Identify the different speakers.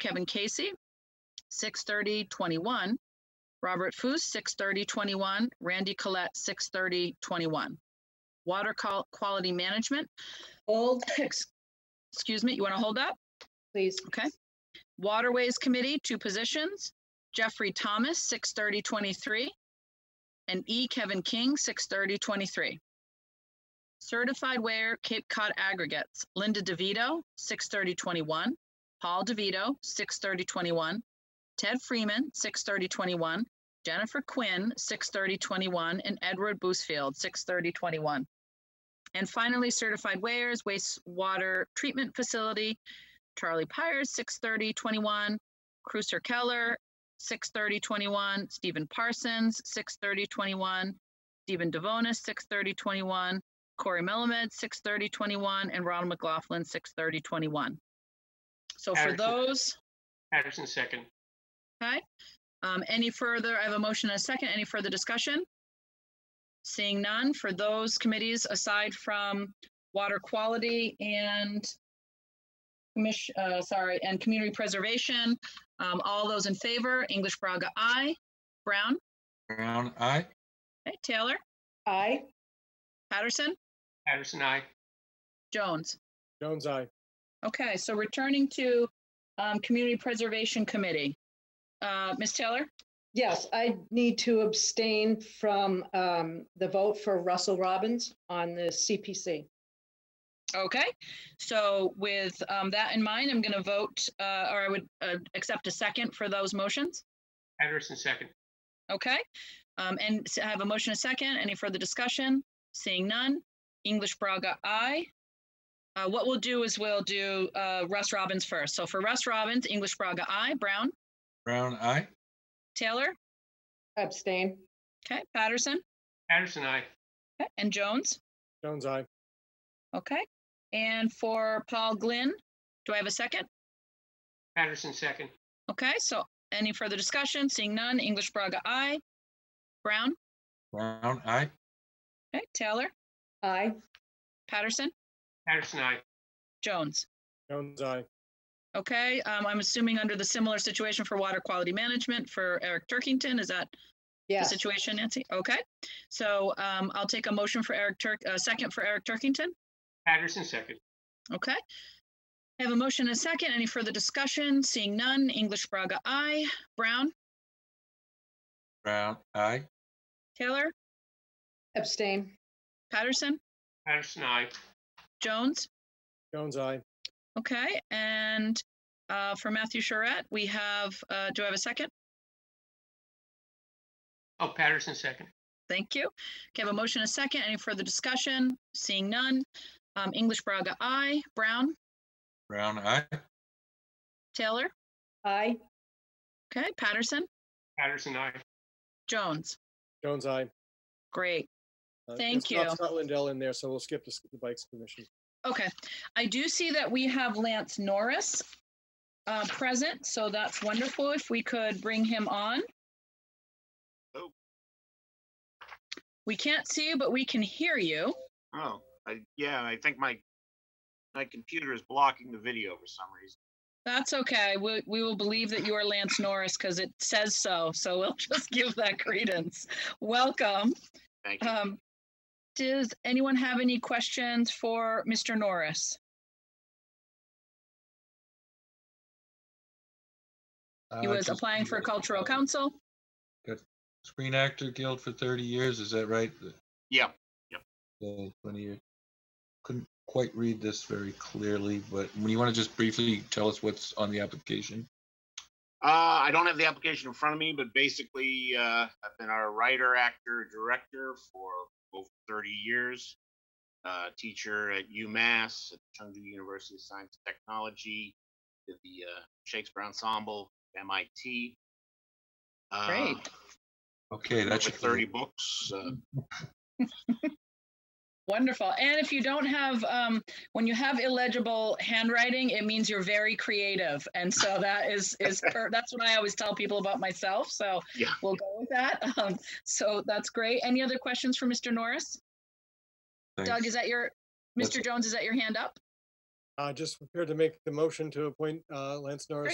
Speaker 1: Kevin Casey, 630-21. Robert Foos, 630-21. Randy Collette, 630-21. Water Qual- Quality Management,
Speaker 2: Hold,
Speaker 1: ex- excuse me, you want to hold up?
Speaker 2: please.
Speaker 1: Okay. Waterways Committee, two positions, Jeffrey Thomas, six thirty twenty-three, and E. Kevin King, six thirty twenty-three. Certified Ware Cape Cod Aggregates, Linda DeVito, six thirty twenty-one, Paul DeVito, six thirty twenty-one, Ted Freeman, six thirty twenty-one, Jennifer Quinn, six thirty twenty-one, and Edward Boosfield, six thirty twenty-one. And finally, Certified Wares Wastewater Treatment Facility, Charlie Pyers, 6:30, 21, Cruiser Keller, 6:30, 21, Stephen Parsons, 6:30, 21, Stephen Devonis, 6:30, 21, Corey Melamed, 6:30, 21, and Ronald McLaughlin, 6:30, 21. So for
Speaker 3: Patterson.
Speaker 1: those,
Speaker 3: Patterson second.
Speaker 1: okay, um, any further, I have a motion and a second, any further discussion? Seeing none, for those committees aside from water quality and commission, uh, sorry, and community preservation, um, all those in favor, English Braga, aye. Brown,
Speaker 4: Brown, aye.
Speaker 1: okay, Taylor,
Speaker 2: Aye.
Speaker 1: Patterson,
Speaker 3: Patterson, aye.
Speaker 1: Jones.
Speaker 5: Jones, aye.
Speaker 1: Okay, so returning to, um, Community Preservation Committee. Uh, Ms. Taylor?
Speaker 2: Yes, I need to abstain from um, the vote for Russell Robbins on the CPC.
Speaker 1: Okay, so with um, that in mind, I'm going to vote, uh, or I would uh, accept a second for those motions.
Speaker 3: Patterson second.
Speaker 1: Okay, Um, and s- I have a motion, a second. Any further discussion? Seeing none. English Braga, aye. Uh, What we'll do is we'll do uh, Russ Robbins first. So for Russ Robbins, English Braga, aye. Brown,
Speaker 4: Brown, aye.
Speaker 1: Taylor,
Speaker 2: Abstain.
Speaker 1: okay, Patterson,
Speaker 3: Patterson, aye.
Speaker 1: okay, and Jones,
Speaker 5: Jones, aye.
Speaker 1: okay. And for Paul Glynn, do I have a second?
Speaker 3: Patterson second.
Speaker 1: Okay, so any further discussion? Seeing none, English Braga, aye. Brown,
Speaker 4: Brown, aye.
Speaker 1: okay, Taylor,
Speaker 2: Aye.
Speaker 1: Patterson,
Speaker 3: Patterson, aye.
Speaker 1: Jones.
Speaker 5: Jones, aye.
Speaker 1: Okay, um, I'm assuming under the similar situation for water quality management for Eric Turkington, is that the
Speaker 2: Yes.
Speaker 1: situation, Nancy? Okay, so, um, I'll take a motion for Eric Turk, a second for Eric Turkington,
Speaker 3: Patterson second.
Speaker 1: okay? I have a motion and a second, any further discussion? Seeing none, English Braga, aye. Brown,
Speaker 4: Brown, aye.
Speaker 1: Taylor,
Speaker 2: Abstain.
Speaker 1: Patterson,
Speaker 3: Patterson, aye.
Speaker 1: Jones?
Speaker 5: Jones, aye.
Speaker 1: Okay, and uh, for Matthew Charette, we have, uh, do I have a second?
Speaker 3: Oh, Patterson second.
Speaker 1: Thank you. Okay, I have a motion, and a second. Any further discussion? Seeing none. Um, English Braga, aye. Brown,
Speaker 4: Brown, aye.
Speaker 1: Taylor,
Speaker 2: Aye.
Speaker 1: okay, Patterson,
Speaker 3: Patterson, aye.
Speaker 1: Jones.
Speaker 5: Jones, aye.
Speaker 1: Great.
Speaker 5: Uh,
Speaker 1: Thank
Speaker 5: it's not
Speaker 1: you.
Speaker 5: Scott Lindell in there, so we'll skip the s- the Bikes Commission.
Speaker 1: Okay, I do see that we have Lance Norris uh, present, so that's wonderful. If we could bring him on.
Speaker 6: Hello.
Speaker 1: We can't see you, but we can hear you.
Speaker 6: Oh, I, yeah, I think my, my computer is blocking the video for some reason.
Speaker 1: That's okay. We, we will believe that you are Lance Norris because it says so. So we'll just give that credence. Welcome.
Speaker 6: Thank you.
Speaker 1: Um, does anyone have any questions for Mr. Norris? He
Speaker 4: Uh,
Speaker 1: was
Speaker 4: just-
Speaker 1: applying for cultural council.
Speaker 4: Screen Actor Guild for thirty years, is that right? The-
Speaker 6: Yeah,
Speaker 4: the twenty years. Couldn't quite read this very clearly, but when you want to just briefly tell us what's on the application?
Speaker 6: uh, I don't have the application in front of me, but basically, uh, I've been a writer, actor, director for over thirty years. Uh, teacher at UMass, at Chengdu University of Science and Technology, did the uh, Shakespeare Ensemble, MIT. Uh,
Speaker 1: Great.
Speaker 4: Okay, that's.
Speaker 6: Over thirty books, uh,
Speaker 1: Wonderful. And if you don't have, um, when you have illegible handwriting, it means you're very creative. And so that is, is, per- that's what I always tell people about myself. So
Speaker 6: Yeah.
Speaker 1: we'll go with that. Um, so that's great. Any other questions for Mr. Norris? Doug, is that your,
Speaker 4: That's-
Speaker 1: Mr. Jones, is that your hand up?
Speaker 5: Uh, just prepared to make the motion to appoint, uh, Lance Norris